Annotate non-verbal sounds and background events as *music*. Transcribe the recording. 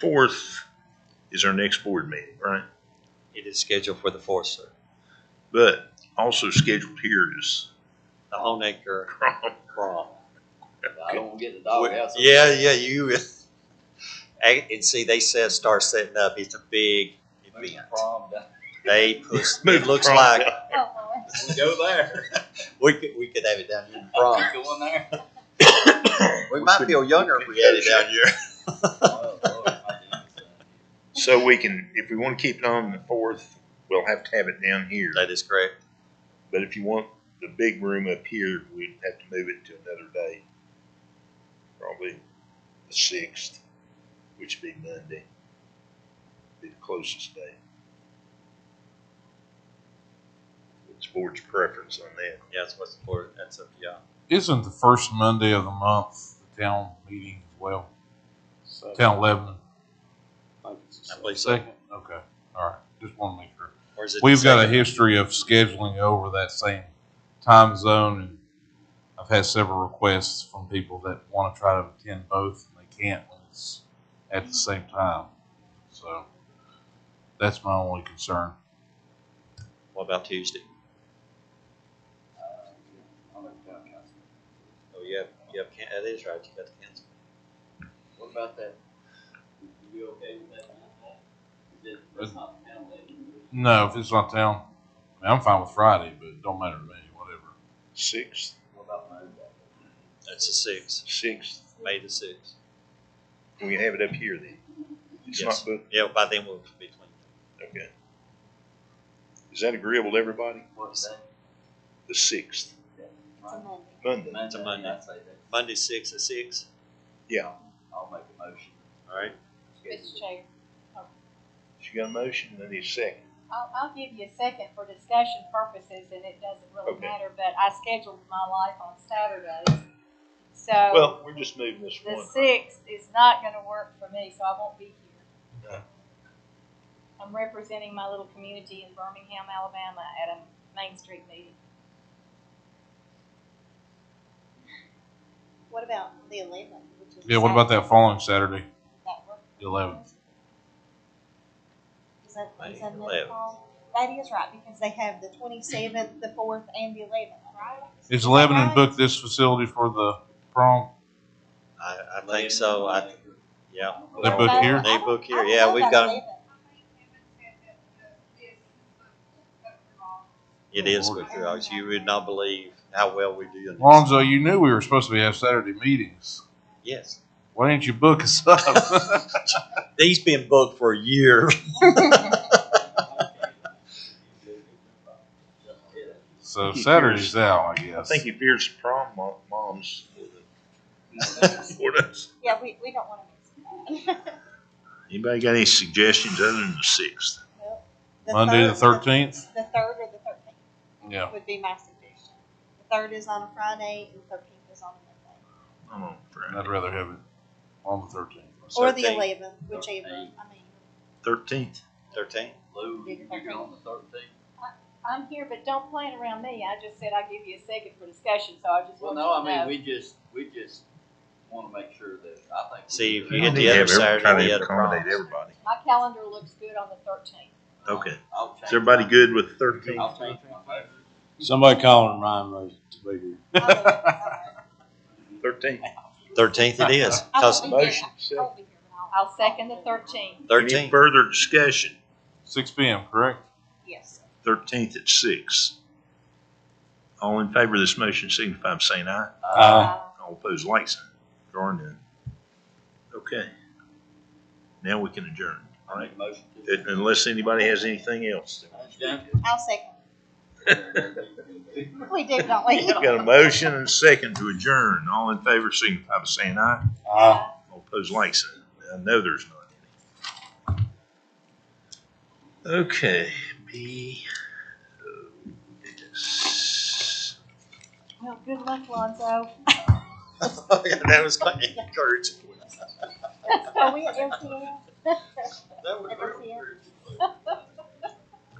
fourth is our next board meeting, right? It is scheduled for the fourth, sir. But also scheduled here is *laughs* The Home Acre prom. Prom. I don't wanna get in the doghouse. Yeah, yeah, you, *laughs* and, and see, they said start setting up, it's a big Move event. the prom down. They *laughs* push, Move it the looks prom like, Oh, Lord. We Go *laughs* there. we could, we could have it down here in prom. Going there. We might feel younger if we had it *laughs* down here. *laughs* Oh, Lord, my *laughs* goodness. So we can, if we want to keep it on the fourth, we'll have to have it down here. That is correct. But if you want the big room up here, we'd have to move it to another day. Probably the sixth, which would be Monday. Be the closest day. It's board's preference on that. Yeah, that's what's for, that's a, yeah. Isn't the first Monday of the month the town meeting as well? Uh, Town Lebanon? I believe so. Second? Okay, all right, just want to make sure. Or is it the We've got a second? history of scheduling over that same time zone, and I've had several requests from people that want to try to attend both, and they can't when it's at the same time. So that's my only concern. What about Tuesday? Uh, I'm in town council. Oh, you have, you have, can- that is right, you got the council. What about that? You you okay with that? Is it- That's not the town lady. No, if it's not town, I mean, I'm fine with Friday, but it don't matter to me, whatever. Sixth, What about Monday? That's the sixth, sixth, May the sixth. we can have it up here then. It's not Yes. booked, Yeah, by then we'll be clean. okay. Is that agreeable to everybody? What day? The sixth, It's a Monday. Monday, a Monday. I'd say that. Monday, six at six, yeah. I'll make a motion. all right? Mr. Chair, She got a motion, then need a second. I'll, I'll give you a second for discussion purposes, and it doesn't really Okay. matter, but I scheduled my life on Saturdays. So Well, we're just moving this the one. sixth is not gonna work for me, so I won't be Okay. here. I'm representing my little community in Birmingham, Alabama at a Main Street meeting. What about the eleventh? Yeah, what about that following Saturday, That work? the 11th? Is that, May is that another 11th. call? That is right, because they have the twenty-seventh, the fourth, and the eleventh, right? Is Lebanon booked this facility for the prom? I, I think so, I, yeah. They book Well, here? I don't- They book here, I don't yeah, know we've about got 'em. 11th. It is good for us. You would not believe how well we do. in this. Lonzo, you knew we were supposed to be have Saturday meetings. Yes. Why didn't you book us up? He's been booked for a year. so Saturday's out, I guess. I think he fears the prom mo- moms for us. Yeah, we, we don't wanna miss that. Anybody got any suggestions other than the sixth? Well, Monday the third- thirteenth. The third or the thirteenth Yeah. would be my suggestion. The third is on a Friday, and the thirteenth is on a Monday. I'm on Friday. I'd rather have it on the thirteenth. Or the 13th. eleventh, whichever, *laughs* I mean. Thirteenth. Thirteen. Lou, you you're on the thirteenth? I'm here, but don't plan around me. I just said I'll give you a second for discussion, so I just Well, want no, I you to mean, know. we just, we just wanna make sure that, I think. we See, if do you that. hit the other Saturday, the other accommodate proms. everybody. My calendar looks good on the thirteenth. Okay. I'll change Is everybody my- good with thirteenth? I'll change my vote. Somebody calling Ryan Rose to be here. Thirteenth. Thirteenth it *laughs* is. 'Cause Motion. second. I'll second the thirteenth. Any thirteen. *laughs* further discussion? Six p.m. Correct. Yes. Thirteenth at six. All in favor of this motion, signify by saying aye. Uh, All opposed, like sign. Draw none. Okay. Now we can adjourn, all I right? make a motion to. Un- Unless anybody has anything else. I'll second. Yeah. We did, don't we? Got a motion and a second to adjourn. All in favor, signify by saying aye. uh, All opposed, like sign. I know there's not any. Okay, oh, B. O, S. Well, good luck, Lonzo. That was *laughs* quite encouraging. Are we at MTL? That was Ever see very encouraging.